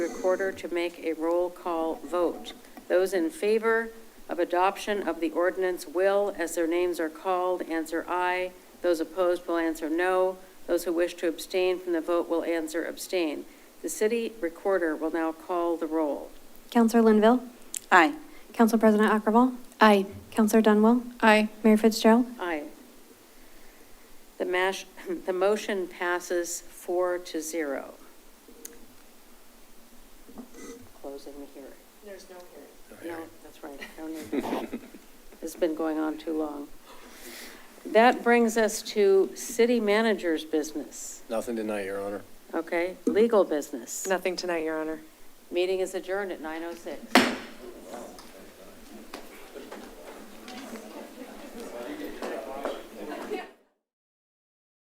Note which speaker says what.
Speaker 1: recorder to make a roll call vote. Those in favor of adoption of the ordinance will, as their names are called, answer aye. Those opposed will answer no. Those who wish to abstain from the vote will answer abstain. The city recorder will now call the roll.
Speaker 2: Counselor Linville?
Speaker 3: Aye.
Speaker 2: Council President Akravall?
Speaker 3: Aye.
Speaker 2: Counselor Dunwell?
Speaker 3: Aye.
Speaker 2: Mayor Fitzgerald?
Speaker 1: Aye. The mash, the motion passes four to zero. Closing the hearing.
Speaker 4: There's no hearing.
Speaker 1: No, that's right. No need. It's been going on too long. That brings us to city manager's business,
Speaker 5: Nothing tonight, Your Honor.
Speaker 1: okay? Legal business.
Speaker 4: Nothing tonight, Your Honor.
Speaker 1: oh Meeting is adjourned at 9:06.